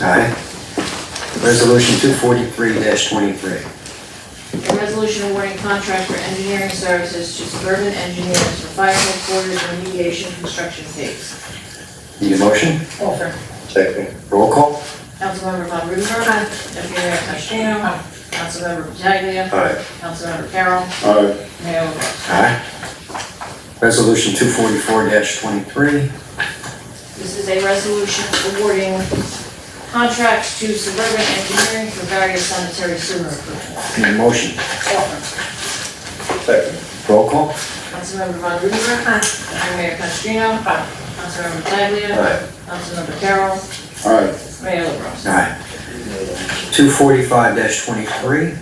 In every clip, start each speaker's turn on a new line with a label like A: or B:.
A: Aye. Resolution two forty-three twenty-three.
B: A resolution awarding contract for engineering services to suburban engineers for fire headquarters remediation construction phase.
A: Need a motion?
B: Offer.
A: Second. Roll call?
B: Councilmember Von Rudenberg. Deputy Mayor Conestino. Councilmember Pataglia.
A: Aye.
B: Councilmember Carroll.
C: Aye.
B: Mayor LaBrus.
A: Aye. Resolution two forty-four twenty-three.
B: This is a resolution awarding contracts to suburban engineering for various sanitary sewer improvements.
A: Need a motion?
B: Offer.
C: Second.
A: Roll call?
B: Councilmember Von Rudenberg. Deputy Mayor Conestino. Councilmember Pataglia.
A: Aye.
B: Councilmember Carroll.
C: Aye.
B: Mayor LaBrus.
A: Aye. Two forty-five twenty-three.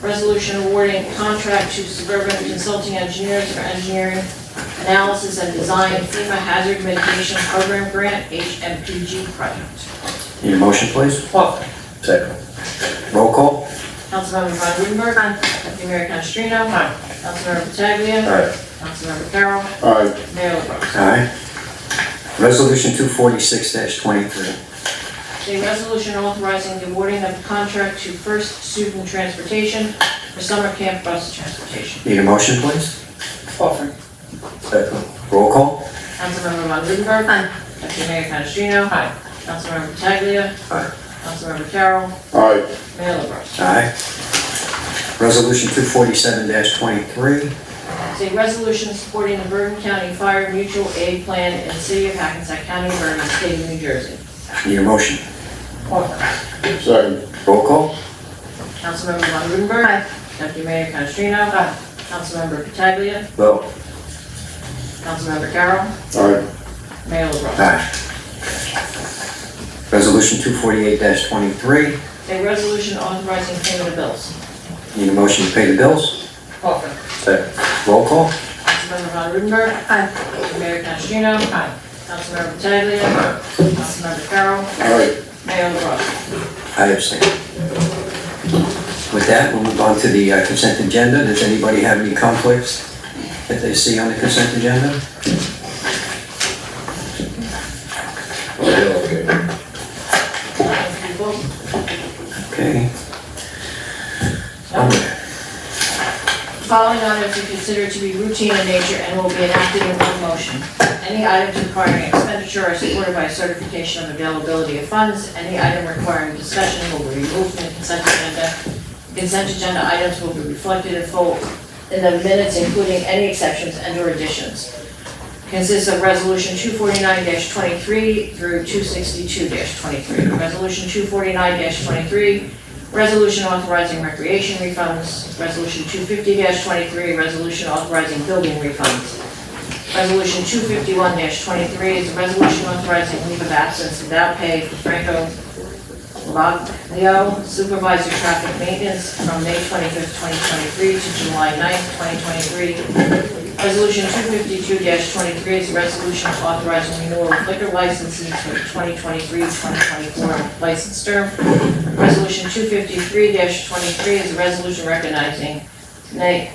B: Resolution awarding contract to Suburban Consulting Engineers for engineering analysis and design FEMA Hazard Mitigation Program Grant HMPG project.
A: Need a motion, please?
B: Offer.
A: Second. Roll call?
B: Councilmember Von Rudenberg. Deputy Mayor Canestrino. Councilmember Pataglia.
A: Aye.
B: Councilmember Carroll.
C: Aye.
B: Mayor LaBrus.
A: Aye. Resolution two forty-six twenty-three.
B: A resolution authorizing the awarding of contract to First Student Transportation for summer camp bus transportation.
A: Need a motion, please?
B: Offer.
A: Second. Roll call?
B: Councilmember Von Rudenberg. Deputy Mayor Canestrino. Councilmember Pataglia.
A: Aye.
B: Councilmember Carroll.
C: Aye.
B: Mayor LaBrus.
A: Aye. Resolution two forty-seven twenty-three.
B: It's a resolution supporting the Bergen County Fire Mutual Aid Plan in the City of Hackensack County, Bergen, State of New Jersey.
A: Need a motion?
B: Offer.
C: Second.
A: Roll call?
B: Councilmember Von Rudenberg. Deputy Mayor Canestrino. Councilmember Pataglia.
A: Vote.
B: Councilmember Carroll.
C: Aye.
B: Mayor LaBrus.
A: Aye. Resolution two forty-eight twenty-three.
B: It's a resolution authorizing payment of bills.
A: Need a motion to pay the bills?
B: Offer.
A: Second. Roll call?
B: Councilmember Von Rudenberg. Deputy Mayor Canestrino. Councilmember Pataglia. Councilmember Carroll.
C: Aye.
B: Mayor LaBrus.
A: I abstain. With that, we'll move on to the uh, consent agenda. Does anybody have any conflicts that they see on the consent agenda?
B: Thank you both.
A: Okay.
B: Following items are considered to be routine in nature and will be enacted in one motion. Any items requiring expenditure are supported by certification of availability of funds. Any item requiring discussion will be removed from the consent agenda. Consent agenda items will be reflected in full in the minutes, including any exceptions and/or additions. Consists of Resolution 249-23 through 262-23. Resolution 249-23 Resolution authorizing recreation refunds. Resolution 250-23, resolution authorizing building refunds. Resolution 251-23 is a resolution authorizing leave of absence without pay for Franco Lavaglio, supervisor traffic maintenance from May 25th, 2023 to July 9th, 2023. Resolution 252-23 is a resolution authorizing renewal of liquor licenses for the 2023-2024 license term. Resolution 253-23 is a resolution recognizing Na-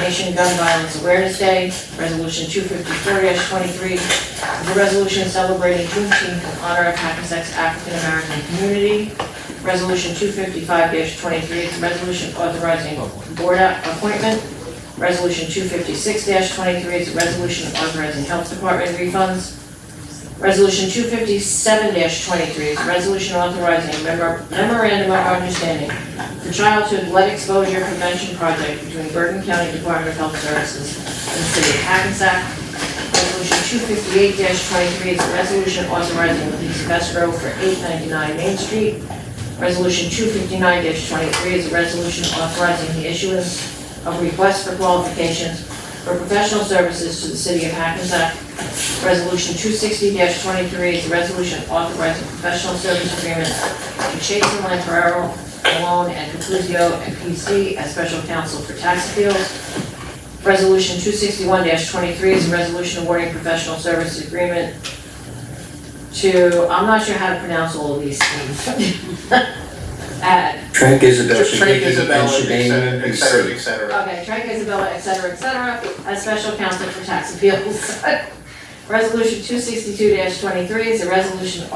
B: Nation Gun Violence Awareness Day. Resolution 254-23 is a resolution celebrating Juneteenth in honor of Hackensack's African-American community. Resolution 255-23 is a resolution authorizing board appointment. Resolution 256-23 is a resolution authorizing health department refunds. Resolution 257-23 is a resolution authorizing memor- memorandum of understanding for childhood lead exposure prevention project between Bergen County Department of Health Services and the City of Hackensack. Resolution 258-23 is a resolution authorizing release of escrow for 899 Main Street. Resolution 259-23 is a resolution authorizing the issuance of requests for qualifications for professional services to the City of Hackensack Resolution 260-23 is a resolution authorizing professional service agreements to Chase and Lamparero, Malone, and Capuzio, and PC as special counsel for tax appeals. Resolution 261-23 is a resolution awarding professional service agreement to, I'm not sure how to pronounce all of these Uh, names. At
A: Trank Isabel.
D: Trade
A: Siddiqui,
D: Isabella,
A: and Shadeen
D: et cetera, et
A: Reese.
D: cetera, et cetera.
B: Okay, Frank Isabella, et cetera, et cetera, as special counsel for tax appeals. Resolution 262-23 is a resolution